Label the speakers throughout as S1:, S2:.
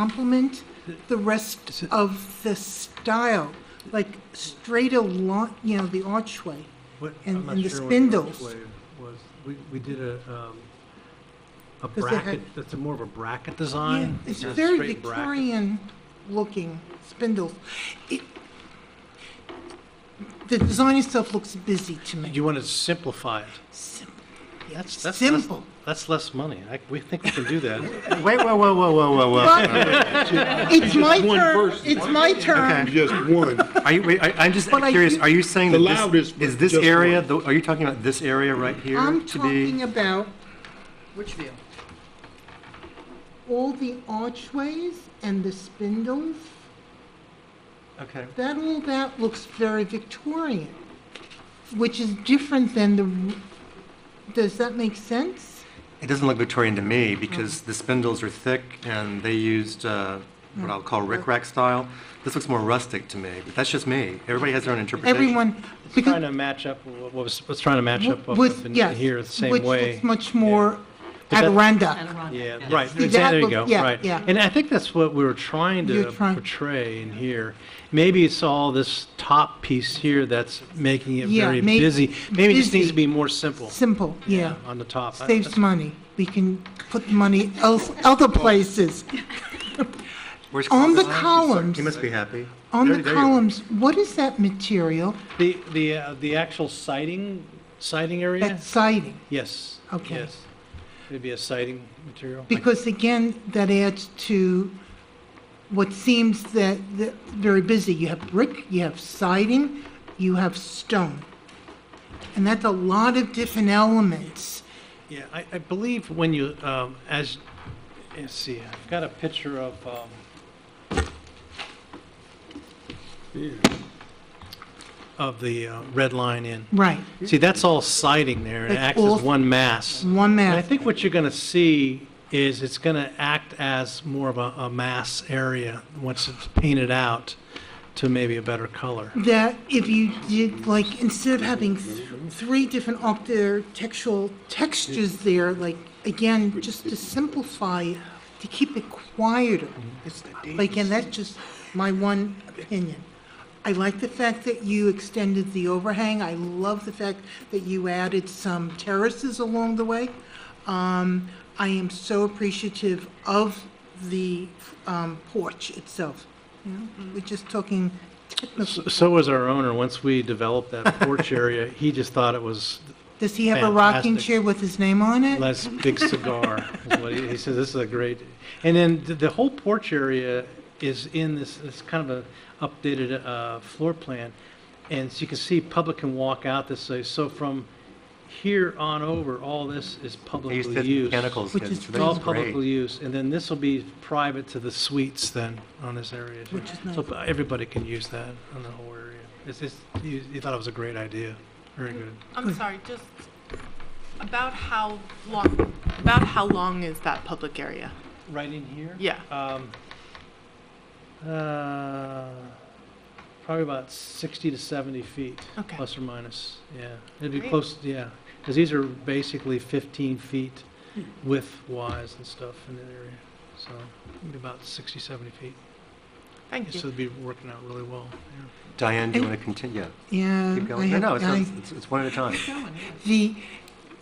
S1: complement the rest of the style, like straight along, you know, the archway.
S2: What-
S1: and-
S2: I'm not
S1: and the
S2: sure what
S1: spindles.
S2: archway Was, we, we did a, um, a
S1: 'Cause they had-
S2: bracket, that's a more of a bracket
S1: Yeah,
S2: design.
S1: It's
S2: not a
S1: very
S2: straight bracket.
S1: Victorian-looking spindles. It- The design itself looks busy to me.
S2: You want to simplify it.
S1: Simple.
S2: That's, that's, less-
S1: Simple.
S2: that's less money. I, we think we can do that.
S3: Wait, whoa, whoa, whoa, whoa, whoa, whoa.
S1: But it's my turn, it's my turn.
S3: Okay.
S4: Just one.
S3: Are you, wait, I- I'm just
S1: But I
S3: curious,
S1: did-
S3: are you saying
S4: The
S3: that this,
S4: loudest was
S3: is this
S4: just
S3: area,
S4: one.
S3: the- are you talking about this area right here
S1: I'm
S3: to
S1: talking
S3: be?
S1: about
S5: Which view?
S1: all the archways and the spindles.
S3: Okay.
S1: That, all that looks very Victorian, which is different than the, does that make sense?
S3: It doesn't look Victorian to me because the spindles are thick and they used uh, what I'll
S1: Mm.
S3: call rickrack style. This looks more rustic to me, but that's just me. Everybody has their own interpretation.
S1: Everyone,
S2: It's
S1: because
S2: trying to match up, what was, what's trying to match up up
S1: With,
S2: in
S1: yes.
S2: here the same
S1: which
S2: way.
S1: looks much more
S2: But that-
S1: Adirondack.
S5: Adirondack,
S2: Yeah,
S5: yes.
S2: right,
S1: See,
S2: exactly,
S1: that
S2: there you
S1: look-
S2: go,
S1: yeah,
S2: right.
S1: yeah.
S2: And I think that's what we were trying to
S1: You're trying-
S2: portray in here. Maybe it's all this top piece here that's making it
S1: Yeah,
S2: very
S1: may-
S2: busy. Maybe it just needs
S1: busy.
S2: to be more simple
S1: Simple, yeah.
S2: on the top. I-
S1: Saves money. We can put money else, other places.
S3: Where's
S1: On the
S3: Columbus?
S1: columns,
S3: He must be happy.
S1: on
S3: There-
S1: the
S3: there you are.
S1: columns, what is that material?
S2: The, the, uh, the actual siding, siding area?
S1: That siding?
S2: Yes.
S1: Okay.
S2: Yes. It'd be a siding material.
S1: Because again, that adds to what seems that, that very busy. You have brick, you have siding, you have stone. And that's a lot of different elements.
S2: Yeah, I, I believe when you, um, as, let's see, I've got a picture of, um, of the uh, Red Line Inn.
S1: Right,
S2: See, that's all siding there, and it
S1: That's
S2: acts
S1: all-
S2: as one mass.
S1: one
S2: And I
S1: mass.
S2: think what you're gonna see is it's gonna act as more of a, a mass area, once it's painted out to maybe a better color.
S1: That if you did, like, instead of having th- three different architectural textures there, like, again, just to simplify, it, to keep it quieter. But again, that's just my one opinion. I like the fact that you extended the overhang. I love the fact that you added some terraces along the way. Um, I am so appreciative of the um, porch itself. You know, We're just talking technical.
S2: S- So was our owner, once we developed that porch area, he just thought it was
S1: Does he have a rocking
S2: Fantastic.
S1: chair with his name on it?
S2: Les Big Cigar is what he, he says. This is a great, and then the, the whole porch area is in this, this kind of a updated uh, floor plan, and so you can see public can walk out this way. So from here on over, all this is
S3: They
S2: publicly
S3: used
S2: used.
S3: to mechanicals,
S1: Which is
S3: kids, so
S2: It's
S3: that
S2: all
S3: was
S2: publicly
S3: great.
S2: used, and then this will be private to the suites then on this area. too.
S1: Which is
S2: So everybody can use that on the whole area. It's, it's, you, you thought it was a great idea. Very
S6: Hmm.
S2: good.
S6: I'm sorry, just about how long, about how long is that public area?
S2: Right in here?
S6: Yeah.
S2: Um, uh, probably about 60 to 70 feet.
S6: Okay.
S2: Plus or minus, yeah. It'd be
S6: Great.
S2: close, yeah, because these are basically 15 feet
S6: Hmm.
S2: width-wise and stuff in that area. So it'd be about 60, 70 feet.
S6: Thank
S2: So
S6: you.
S2: it'd be working out really well. yeah.
S3: Diane, do you want to continue? Yeah,
S1: Yeah.
S3: Keep
S1: I
S3: going. No,
S1: have-
S3: no, it's not-
S1: I-
S3: it's, it's one at a time.
S1: The,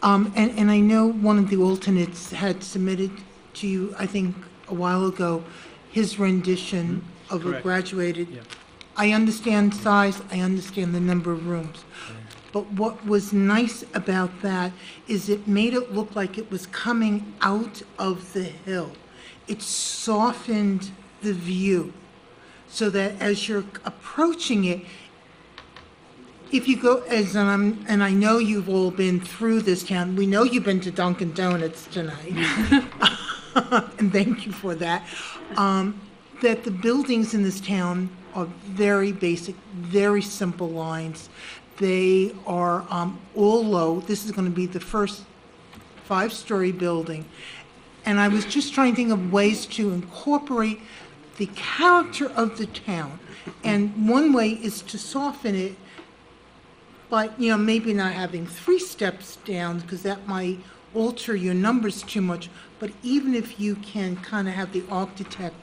S1: um, and, and I know one of the alternates had submitted to you, I think, a while ago, his rendition of a
S2: Mm-hmm. Correct.
S1: graduated.
S2: Yeah.
S1: I understand size, I understand the number of rooms. But what was nice about that is it made it look like it was coming out of the hill. It softened the view so that as you're approaching it, if you go, as um, and I know you've all been through this town, we know you've been to Dunkin' Donuts tonight, and thank you for that, um, that the buildings in this town are very basic, very simple lines. They are um, all low. This is going to be the first five-story building. And I was just trying to think of ways to incorporate the character of the town. And one way is to soften it but, you know, maybe not having three steps down, because that might alter your numbers too much, but even if you can kind of have the architect